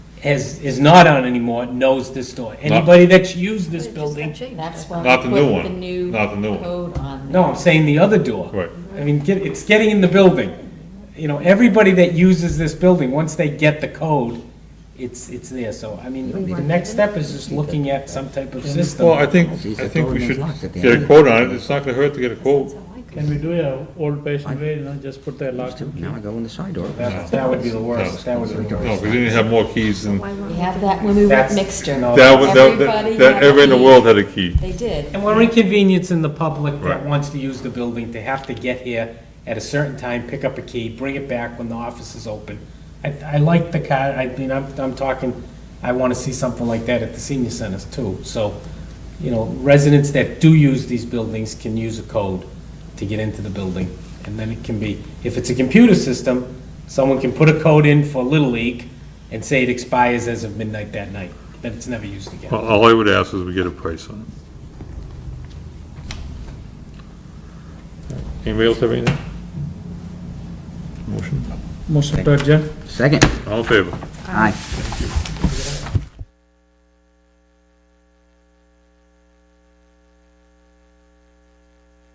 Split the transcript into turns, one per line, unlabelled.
has, is not on anymore knows this story. Anybody that's used this
It just got
building,
changed,
That's
that's
why
all.
we
Not the new
put the
one.
new
Not the new one.
code on.
no, I'm saying the other door.
Right.
I mean, get, it's getting in the building. You know, everybody that uses this building, once they get the code, it's, it's there. So, I mean,
We
the
want
next
it.
step is just looking at some type of
Well, I
system.
think,
She's
I think we
throwing
should
those locks at the
get a
end.
quote on it, it's not gonna hurt to get a quote.
I could-
Can we do a old fashioned way, you know, just put the lock?
Now I go in the side door.
That that would be the worst, that would be the
No,
worst.
because then you have more keys than,
why won't
We had that when we were at
That's-
Mixter.
no.
that, was- that,
Everybody
that- that,
had a
everyone in the
key.
world had a key.
They did.
And we're inconveniencing the public that
Right.
wants to use the building to have to get here at a certain time, pick up a key, bring it back when the office is open. I, I like the car, I mean, I'm, I'm talking, I want to see something like that at the senior centers too. So, you know, residents that do use these buildings can use a code to get into the building. And then it can be, if it's a computer system, someone can put a code in for Little League and say it expires as of midnight that night, then it's never used again.
Well, All I would ask is we get a price on it. Anybody else have anything? Motion?
Motion to adjourn.
Second.
All in favor?
Aye.